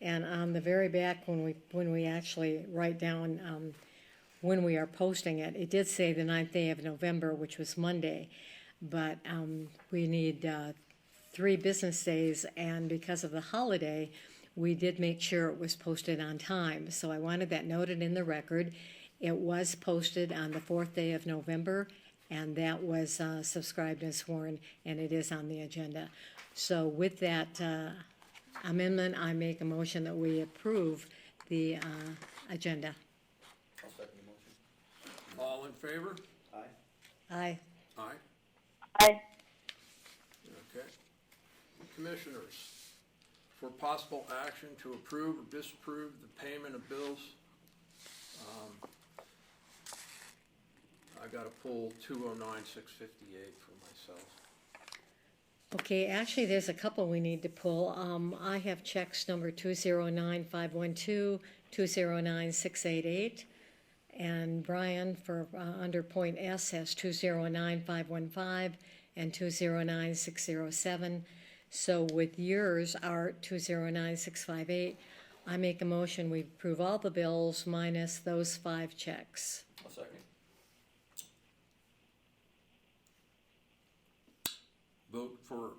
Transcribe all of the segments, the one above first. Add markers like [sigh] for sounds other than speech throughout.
And on the very back, when we, when we actually write down, um, when we are posting it, it did say the ninth day of November, which was Monday. But, um, we need, uh, three business days, and because of the holiday, we did make sure it was posted on time. So I wanted that noted in the record. It was posted on the fourth day of November, and that was uh, subscribed and sworn, and it is on the agenda. So with that uh, amendment, I make a motion that we approve the uh, agenda. I'll second the motion. All in favor? Aye. Aye. Aye, Aye. okay. Commissioners, for possible action to approve or disapprove the payment of bills. um, I gotta pull two oh nine six fifty-eight for myself. Okay, actually, there's a couple we need to pull. Um, I have checks number two zero nine five one two, two zero nine six eight eight. And Brian for, uh, under point S has two zero nine five one five and two zero nine six zero seven. So with yours are two zero nine six five eight. I make a motion, we approve all the bills minus those five checks. I'll second. Vote for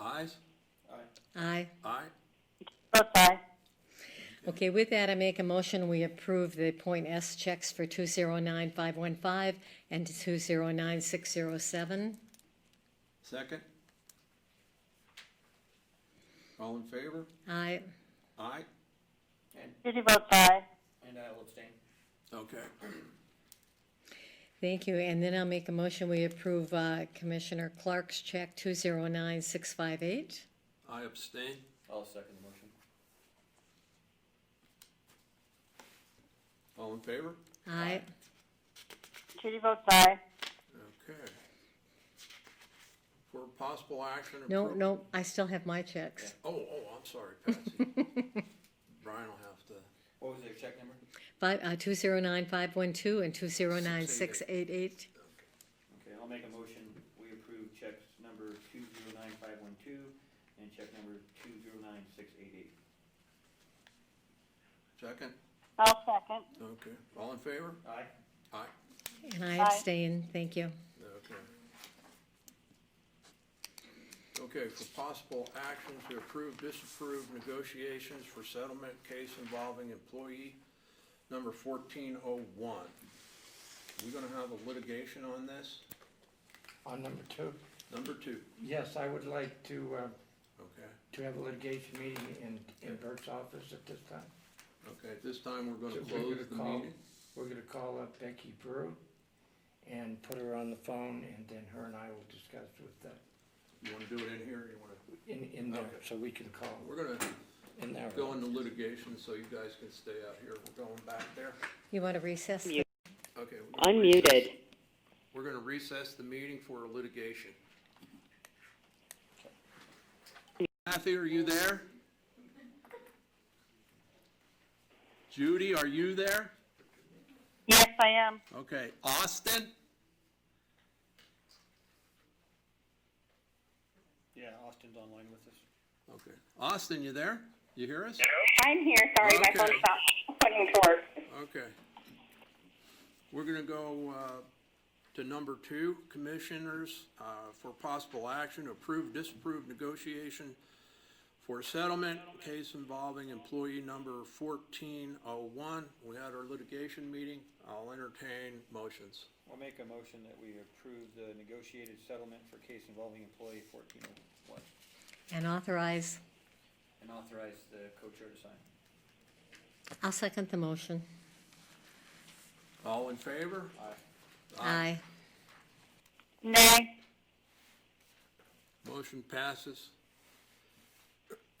ayes? Aye. Aye. Aye? Votes aye. Okay, with that, I make a motion, we approve the point S checks for two zero nine five one five and two zero nine six zero seven. Second? All in favor? I, Aye? And, Judy votes aye. and I'll abstain. Okay. thank you, and then I'll make a motion, we approve uh, Commissioner Clark's check two zero nine six five eight. I abstain. I'll second the motion. All in favor? I, Judy votes aye. Okay. For possible action. no, appro- no, I still have my checks. Oh, oh, I'm sorry, [laughs] Patsy. Brian will have to, What was their check number? Five, uh, two zero nine five one two and two zero nine six eight eight. Okay, I'll make a motion, we approve checks number two zero nine five one two and check number two zero nine six eight eight. second, I'll second. okay, all in favor? Aye. Aye, And I Aye. abstain, thank you. okay. Okay, for possible action to approve, disapprove negotiations for settlement case involving employee number fourteen oh one. We gonna have a litigation on this? On number two, Number two, yes, I would like to, uh, okay, to have a litigation meeting in, in Bert's office at this time. okay, at this time, we're So gonna we're close gonna the call- meeting. We're gonna call up Becky Brew and put her on the phone, and then her and I will discuss with them You wanna do it in here, or you wanna? in, in there, Okay. so we can call We're gonna in there. go into litigation, so you guys can stay out here, we're going back there. You want to recess? You- Okay. we're gonna recess- Unmuted. We're gonna recess the meeting for litigation. Kathy, are you there? Judy, are you there? Yes, I am. Okay, Austin? Yeah, Austin's online with us. Okay, Austin, you there? You hear us? I'm here, sorry, my Okay. phone stopped putting to work. Okay. We're gonna go, uh, to number two, commissioners, uh, for possible action, approve, disapprove negotiation for settlement, case involving employee number fourteen oh one. We had our litigation meeting. I'll entertain motions. I'll make a motion that we approve the negotiated settlement for case involving employee fourteen oh one. And authorize, And authorize the co-chair to sign. I'll second the motion. All in favor? Aye. Aye. Nay. Motion passes. [clears throat]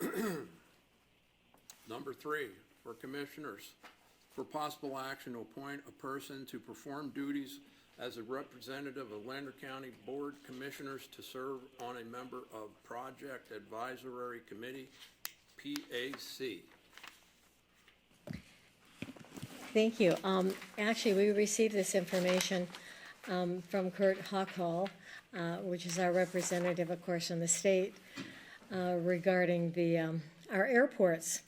Number three, for commissioners, for possible action to appoint a person to perform duties as a representative of Lander County Board Commissioners to serve on a member of Project Advisory Committee, PAC. Thank you. Um, actually, we received this information, um, from Kurt Hockhall, uh, which is our representative, of course, in the state, uh, regarding the, um, our airports.